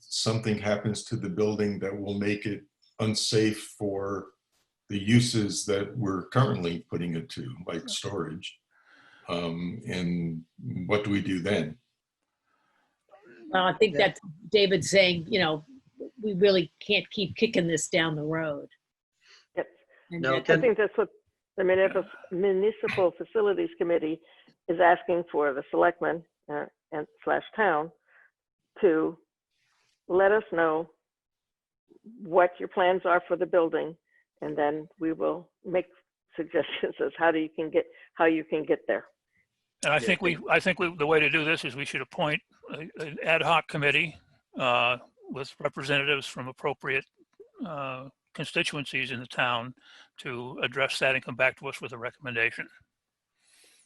something happens to the building that will make it unsafe for the uses that we're currently putting it to, like storage. Um, and what do we do then? Well, I think Yeah. that's David saying, you know, we really can't keep kicking this down the road. Yep. And No, that- can- I think that's what the municipal- municipal facilities committee is asking for the selectmen uh, and slash town to let us know what your plans are for the building, and then we will make suggestions as how do you can get, how you can get there. And I Yeah, think we, I think we, the way to do this is we should appoint a- an ad hoc committee uh, with representatives from appropriate uh, constituencies in the town to address that and come back to us with a recommendation.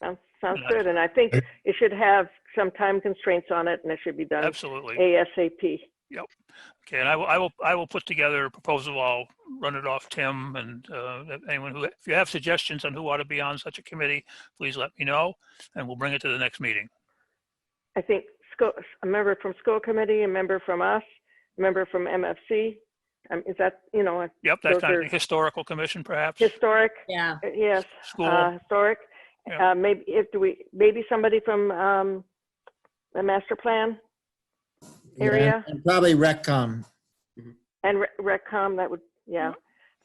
Sounds, sounds Yeah. good, and I think it should have some time constraints on it, and it should be done Absolutely. ASAP. Okay, and I will, I will, I will put together a proposal. I'll run it off Tim and uh, if anyone who, if you have suggestions on who ought to be on such a committee, please let me know and we'll bring it to the next meeting. I think school, a member from school committee, a member from us, a member from MFC. Um, is that, you know, a Yep, that Those kind of are- thing. historical commission perhaps, historic, Yeah, uh, yes, uh, school. historic. Yeah. Uh, maybe if do we, maybe somebody from, um, the master plan Yeah. area And probably RecCom. and Re- Reccom, that would, yeah.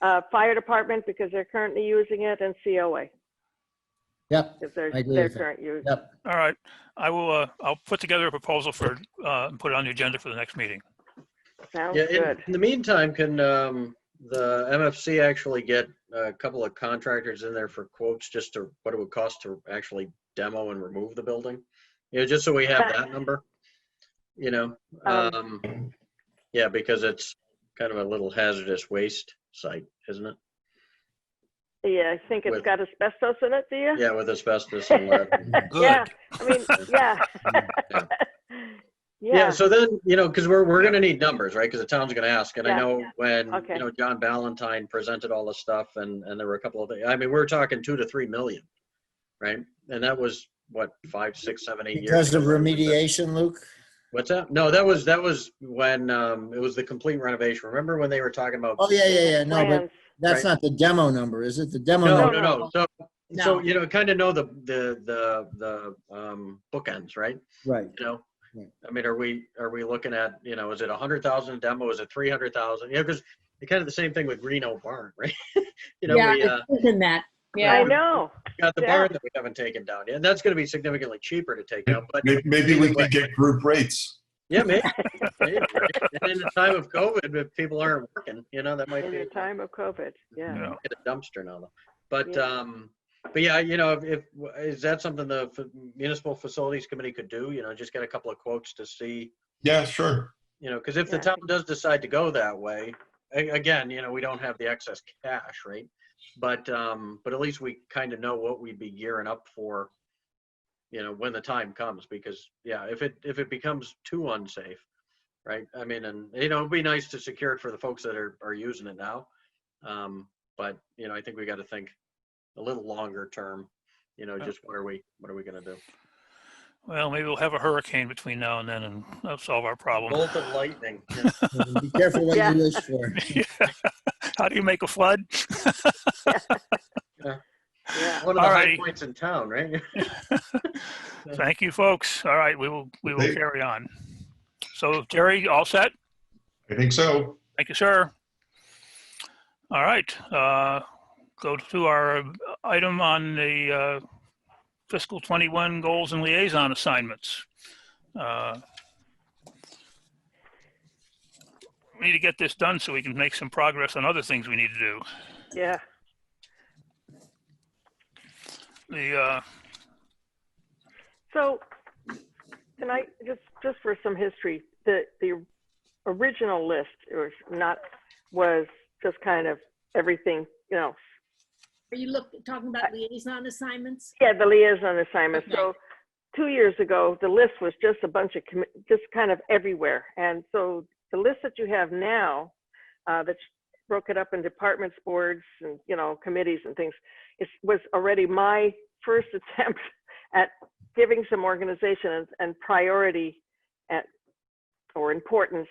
Uh, fire department because they're currently using it and COA Yep. because they're, I agree they're with that. current use. Yep. All right, I will, uh, I'll put together a proposal for, uh, and put it on the agenda for the next meeting. Sounds Yeah, in, good. in the meantime, can um, the MFC actually get a couple of contractors in there for quotes just to what it would cost to actually demo and remove the building? You know, just so we have that number, you know? Um, Um, yeah, because it's kind of a little hazardous waste site, isn't it? Yeah, I think it's With- got asbestos in it, do you? Yeah, with asbestos and lead. Yeah, I mean, yeah. Yeah. Yeah, Yeah, so then, you know, because we're, we're gonna need numbers, right? Because the town's gonna ask, and I Yeah. know when, Okay. you know, John Ballantyne presented all the stuff, and, and there were a couple of, I mean, we were talking two to three million, right? And that was, what, five, six, seven, eight years? Because of ago. remediation, Luke? What's that? No, that was, that was when, um, it was the complete renovation. Remember when they were talking about? Oh, yeah, yeah, yeah. No, but plans. that's Right. not the demo number, is it? The demo No, number. no, no, so, No. so, you know, kind of know the, the, the, the, um, bookends, right? Right. you know? Yeah. I mean, are we, are we looking at, you know, is it a hundred thousand demo? Is it three hundred thousand? You know, because it's kind of the same thing with Reno Barn, right? You know, yeah, we, uh, it's in that, I yeah. know. got the yeah. barn that we haven't taken down yet. And that's gonna be significantly cheaper to take down, but May- Maybe we could get group rates. yeah, maybe. maybe, right? And in the time of COVID, if people aren't working, you know, that might In be. the time of COVID, yeah. Yeah. get a dumpster now though. But, Yeah. um, but yeah, you know, if, if, is that something the f- municipal facilities committee could do? You know, just get a couple of quotes to see, Yeah, sure. You know, because if the Yeah. town does decide to go that way, a- again, you know, we don't have the excess cash, right? But, um, but at least we kind of know what we'd be gearing up for, you know, when the time comes, because, yeah, if it, if it becomes too unsafe, right? I mean, and, you know, it'd be nice to secure it for the folks that are, are using it now. Um, but, you know, I think we got to think a little longer term, you know, Yeah. just what are we, what are we gonna do? Well, maybe we'll have a hurricane between now and then and that'll solve our problem. Bolt of lightning. you know. Be careful what Yeah. you wish for. How do you make a flood? Yeah. One of the high Alrighty. points in town, right? Thank you, folks. All right, we will, we will Okay. carry on. So Jerry, all set? I think so. Thank you, sir. All right, uh, go to our item on the uh, fiscal 21 goals and liaison assignments. Uh, We Need to get this done so we can make some progress on other things we need to do. Yeah. The, uh, So, can I just just for some history, the the original list or not was just kind of everything, you know. Are you look, talking about liaison assignments? Yeah, the liaison assignment. So, two years ago, the list was just a bunch of commi- just kind of everywhere, and so the list that you have now, uh, that's broke it up in departments, boards, and you know committees and things, it was already my first attempt at giving some organization and, and priority at, or importance